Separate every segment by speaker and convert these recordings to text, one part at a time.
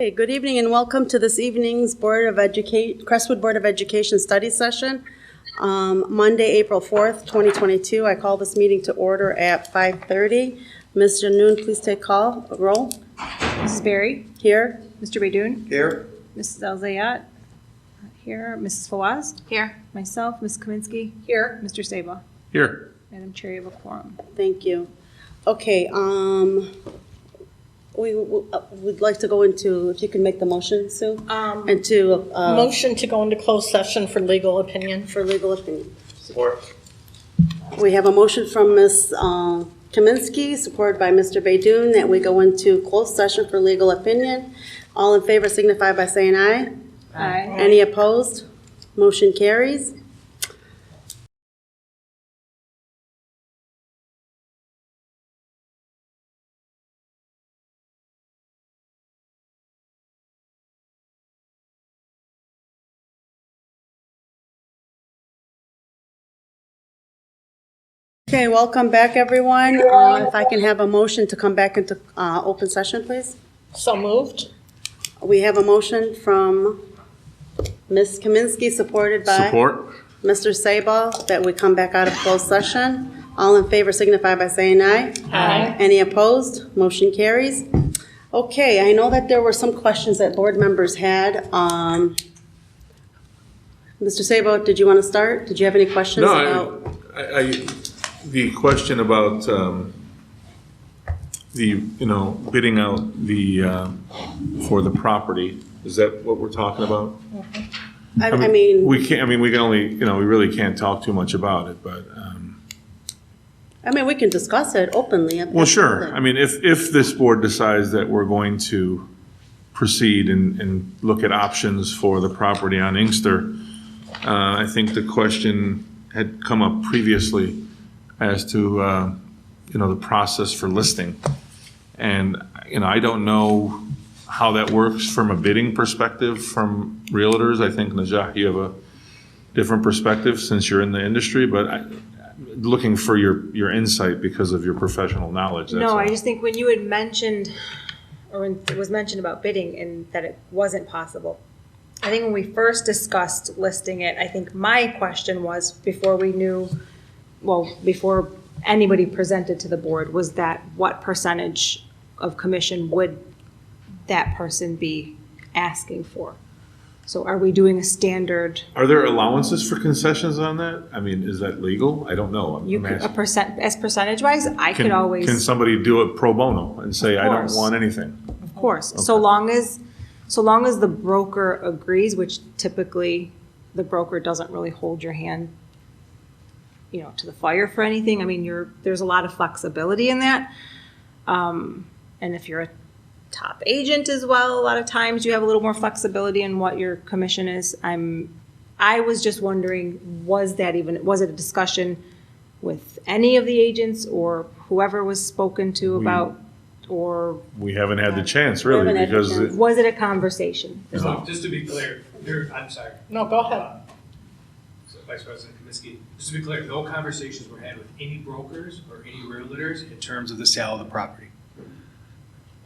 Speaker 1: Hey, good evening and welcome to this evening's Board of Educate, Crestwood Board of Education Study Session. Um, Monday, April 4th, 2022. I call this meeting to order at 5:30. Ms. Janoon, please take call, roll.
Speaker 2: Mrs. Berry,
Speaker 1: Here,
Speaker 2: Mr. Baidoon,
Speaker 3: Here,
Speaker 2: Mrs. Elzayat, not here, Mrs. Fawaz. Here. Myself, Ms. Kaminsky. Here. Mr. Sabah.
Speaker 4: Here.
Speaker 2: Madam Chair, you have a quorum.
Speaker 1: thank you. Okay, um, we would like to go into, if you can make the motion, Sue?
Speaker 5: Um,
Speaker 1: And to, uh,
Speaker 5: Motion to go into closed session for legal opinion.
Speaker 1: for legal opinion.
Speaker 3: support.
Speaker 1: We have a motion from Ms. uh, Kaminsky, supported by Mr. Baidoon, that we go into closed session for legal opinion. All in favor signify by saying aye.
Speaker 2: Aye.
Speaker 1: Any opposed? Motion carries. Okay, welcome back, everyone. Uh, If I can have a motion to come back into uh, open session, please.
Speaker 5: So moved.
Speaker 1: We have a motion from Ms. Kaminsky, supported by
Speaker 4: Support.
Speaker 1: Mr. Sabal, that we come back out of closed session. All in favor signify by saying aye.
Speaker 5: Aye.
Speaker 1: Any opposed? Motion carries. Okay, I know that there were some questions that board members had. Um, Mr. Sabal, did you want to start? Did you have any questions
Speaker 4: No,
Speaker 1: about?
Speaker 4: I, I, I- the question about, um, the, you know, bidding out the, um, for the property, is that what we're talking about?
Speaker 1: I I mean,
Speaker 4: We can't, I mean, we can only, you know, we really can't talk too much about it, but, um,
Speaker 1: I mean, we can discuss it openly.
Speaker 4: well, sure. I mean, if, if this board decides that we're going to proceed and, and look at options for the property on Inkster, uh, I think the question had come up previously as to, uh, you know, the process for listing. And, you know, I don't know how that works from a bidding perspective from realtors. I think, Najah, you have a different perspective since you're in the industry, but I, looking for your, your insight because of your professional knowledge. that's
Speaker 6: No, I
Speaker 4: all.
Speaker 6: just think when you had mentioned, or when it was mentioned about bidding and that it wasn't possible. I think when we first discussed listing it, I think my question was, before we knew, well, before anybody presented to the board, was that what percentage of commission would that person be asking for? So are we doing a standard,
Speaker 4: Are there allowances for concessions on that? I mean, is that legal? I don't know. I'm-
Speaker 6: you,
Speaker 4: I'm
Speaker 6: could- a
Speaker 4: asking.
Speaker 6: percent, as percentage wise? I could
Speaker 4: Can-
Speaker 6: always.
Speaker 4: Can somebody do it pro bono and say, I don't
Speaker 6: course.
Speaker 4: want anything?
Speaker 6: Of course, so long as, so long as the broker agrees, which typically the broker doesn't really hold your hand, you know, to the fire for anything. I mean, you're, there's a lot of flexibility in that. Um, and if you're a top agent as well, a lot of times you have a little more flexibility in what your commission is. I'm, I was just wondering, was that even, was it a discussion with any of the agents or whoever was spoken to about? Or
Speaker 4: We haven't had the chance,
Speaker 1: We haven't
Speaker 4: really,
Speaker 1: had the
Speaker 4: because
Speaker 1: chance.
Speaker 4: it-
Speaker 6: was it a conversation?
Speaker 7: So just to be clear, there, I'm sorry,
Speaker 5: No, go ahead.
Speaker 7: so Vice President Kaminsky, just to be clear, no conversations were had with any brokers or any realtors in terms of the sale of the property.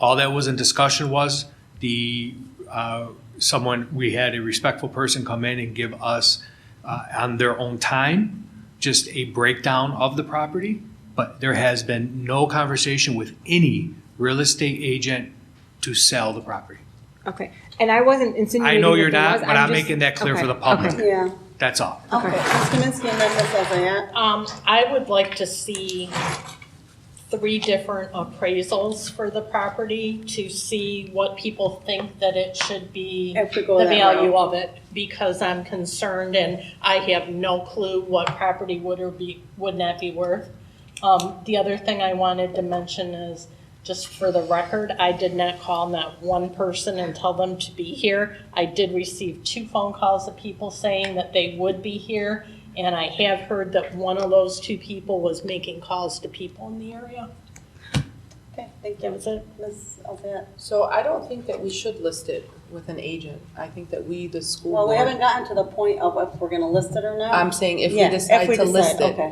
Speaker 7: All that was in discussion was the, uh, someone, we had a respectful person come in and give us, uh, on their own time, just a breakdown of the property, but there has been no conversation with any real estate agent to sell the property.
Speaker 6: Okay, and I wasn't insinuating.
Speaker 7: I know
Speaker 6: that
Speaker 7: you're
Speaker 6: there
Speaker 7: not,
Speaker 6: was,
Speaker 7: but I'm
Speaker 6: just-
Speaker 7: making that clear for the
Speaker 6: okay,
Speaker 7: public.
Speaker 6: okay.
Speaker 1: Yeah,
Speaker 7: That's all.
Speaker 1: okay. Ms. Kaminsky and then Ms. Elzayat.
Speaker 5: Um, I would like to see three different appraisals for the property to see what people think that it should be,
Speaker 1: If we
Speaker 5: the
Speaker 1: go that
Speaker 5: value
Speaker 1: route.
Speaker 5: of it, because I'm concerned and I have no clue what property would or be, would not be worth. Um, the other thing I wanted to mention is, just for the record, I did not call not one person and tell them to be here. I did receive two phone calls of people saying that they would be here, and I have heard that one of those two people was making calls to people in the area.
Speaker 1: Okay, thank
Speaker 5: That was it.
Speaker 1: Ms. Elzayat.
Speaker 8: So I don't think that we should list it with an agent. I think that we, the school
Speaker 1: Well, we
Speaker 8: board,
Speaker 1: haven't gotten to the point of if we're going to list it or not.
Speaker 8: I'm saying if we
Speaker 1: Yeah,
Speaker 8: decide to list
Speaker 1: decide,
Speaker 8: it,
Speaker 1: okay.